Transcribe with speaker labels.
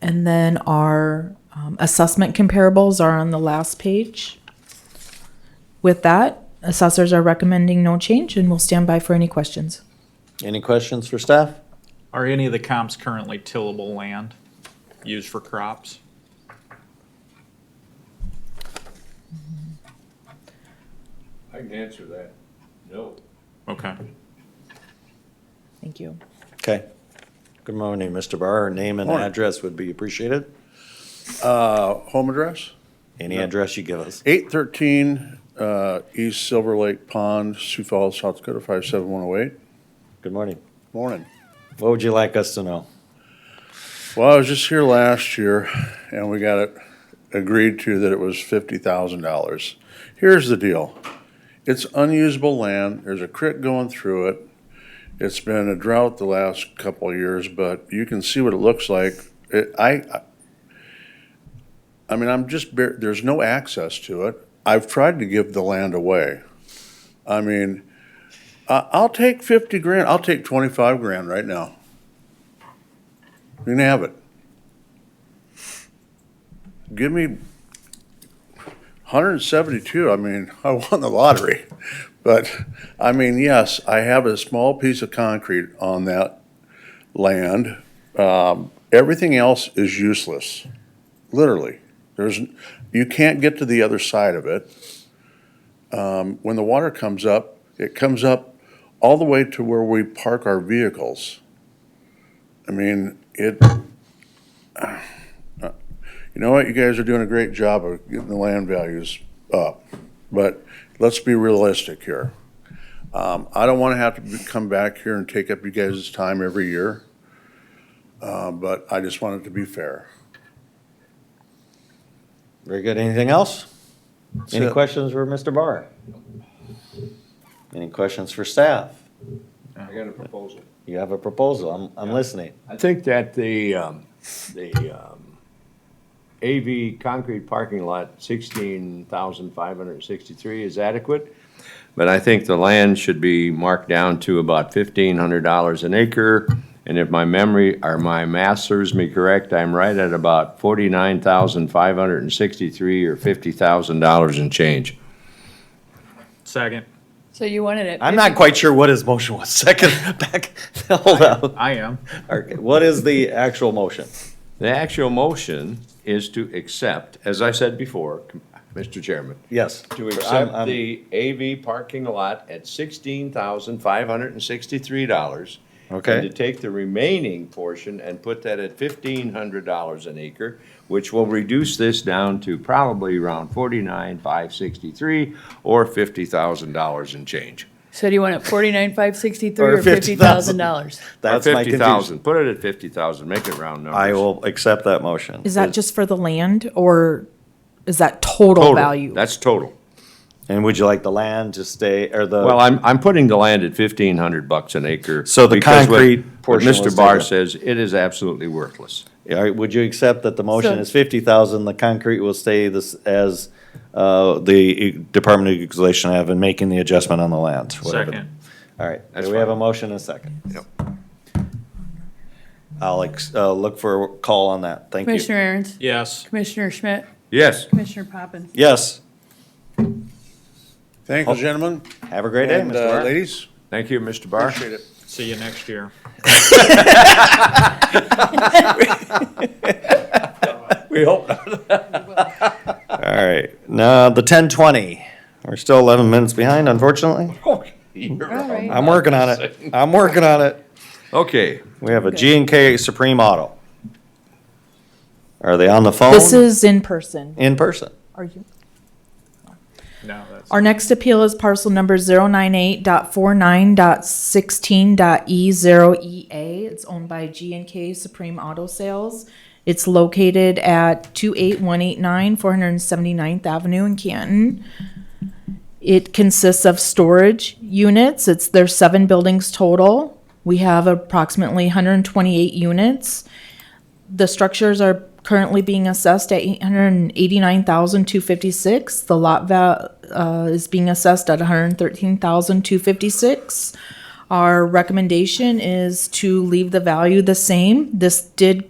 Speaker 1: And then our um, assessment comparables are on the last page. With that, assessors are recommending no change and we will stand by for any questions.
Speaker 2: Any questions for staff?
Speaker 3: Are any of the comps currently tillable land used for crops?
Speaker 4: I can answer that. No.
Speaker 3: Okay.
Speaker 1: Thank you.
Speaker 2: Okay. Good morning, Mr. Barr. Name and
Speaker 5: Morning.
Speaker 2: address would be appreciated.
Speaker 5: Uh, home address,
Speaker 2: Any address you give us.
Speaker 5: eight thirteen, uh, East Silver Lake Pond, Sioux Falls, South Dakota, five seven one oh eight.
Speaker 2: Good morning.
Speaker 5: Morning.
Speaker 2: What would you like us to know?
Speaker 5: Well, I was just here last year and we got it agreed to that it was fifty thousand dollars. Here's the deal. It's unusable land. There's a creek going through it. It's been a drought the last couple of years, but you can see what it looks like. It, I, I- I mean, I'm just, bar- there's no access to it. I've tried to give the land away. I mean, I, I'll take fifty grand. I'll take twenty-five grand right now. You can have it. Give me hundred and seventy-two, I mean, I won the lottery. But, I mean, yes, I have a small piece of concrete on that land. Um, everything else is useless, literally. There's, you can't get to the other side of it. Um, when the water comes up, it comes up all the way to where we park our vehicles. I mean, it, uh, you know what, you guys are doing a great job of getting the land values up, but let's be realistic here. Um, I don't wanna have to be- come back here and take up you guys' time every year. Uh, but I just want it to be fair.
Speaker 2: Very good. Anything else? Any
Speaker 5: it.
Speaker 2: questions for Mr. Barr? Any questions for staff?
Speaker 4: I got a proposal.
Speaker 2: You have a proposal. I'm, I'm listening.
Speaker 4: I think that the, um, the, um, AV concrete parking lot, sixteen thousand five hundred and sixty-three is adequate. But I think the land should be marked down to about fifteen hundred dollars an acre. And if my memory, or my math serves me correct, I'm right at about forty-nine thousand five hundred and sixty-three or fifty thousand dollars in change.
Speaker 3: Second,
Speaker 6: So you wanted it.
Speaker 2: I'm not quite sure what his motion was. Second, back, hold up.
Speaker 3: I am.
Speaker 2: Okay, What is the actual motion?
Speaker 4: The actual motion is to accept, as I said before, Mr. Chairman,
Speaker 2: Yes.
Speaker 4: to
Speaker 2: I'm-
Speaker 4: accept
Speaker 2: I'm-
Speaker 4: the AV parking lot at sixteen thousand five hundred and sixty-three dollars. And to
Speaker 2: Okay,
Speaker 4: take the remaining portion and put that at fifteen hundred dollars an acre, which will reduce this down to probably around forty-nine, five sixty-three, or fifty thousand dollars in change.
Speaker 6: So do you want it forty-nine, five sixty-three
Speaker 2: Or
Speaker 6: or fifty thousand dollars?
Speaker 4: Or
Speaker 2: that's my
Speaker 4: Fifty
Speaker 2: confusion.
Speaker 4: thousand, put it at fifty thousand, make it round numbers.
Speaker 2: I will accept that motion.
Speaker 1: Is that just for the land or is that total
Speaker 4: Total.
Speaker 1: value?
Speaker 4: That's total.
Speaker 2: And would you like the land to stay, or the?
Speaker 4: Well, I'm, I'm putting the land at fifteen hundred bucks an acre.
Speaker 2: So the
Speaker 4: because what-
Speaker 2: concrete
Speaker 4: what
Speaker 2: portion was
Speaker 4: Mr. Barr
Speaker 2: taken.
Speaker 4: says it is absolutely worthless.
Speaker 2: All right, would you accept that the motion
Speaker 6: So-
Speaker 2: is fifty thousand, the concrete will stay this as, uh, the Department of Equalization have in making the adjustment on the land? whatever.
Speaker 3: Second.
Speaker 2: All right,
Speaker 4: That's
Speaker 2: do we have a
Speaker 4: fine.
Speaker 2: motion and a second?
Speaker 4: Yep.
Speaker 2: I'll ex, uh, look for a call on that, thank you.
Speaker 6: Commissioner Aaron's,
Speaker 3: Yes.
Speaker 6: Commissioner Schmidt,
Speaker 4: Yes.
Speaker 6: Commissioner Poppins.
Speaker 2: Yes,
Speaker 5: Thank you, gentlemen.
Speaker 2: have a great day,
Speaker 5: And,
Speaker 2: Mr.
Speaker 5: uh,
Speaker 2: Barr.
Speaker 5: Ladies,
Speaker 4: Thank you, Mr. Barr.
Speaker 5: appreciate it.
Speaker 3: See you next year.
Speaker 4: We hope not.
Speaker 2: All right, now, the ten twenty, we're still eleven minutes behind, unfortunately. I'm working on it, I'm working on it.
Speaker 4: Okay,
Speaker 2: We have a G and K Supreme Auto. Are they on the phone?
Speaker 1: This is in person.
Speaker 2: In person?
Speaker 1: Are you?
Speaker 3: No, that's,
Speaker 1: Our next appeal is parcel number 098.49.16.E0EA. E It's owned by G and K Supreme Auto Sales. It's located at two eight one eight nine, four hundred and seventy-ninth Avenue in Canton. It consists of storage units. It's, there's seven buildings total. We have approximately hundred and twenty-eight units. The structures are currently being assessed at eight hundred and eighty-nine thousand two fifty-six. The lot val, uh, is being assessed at one hundred thirteen thousand two fifty-six. Our recommendation is to leave the value the same. This did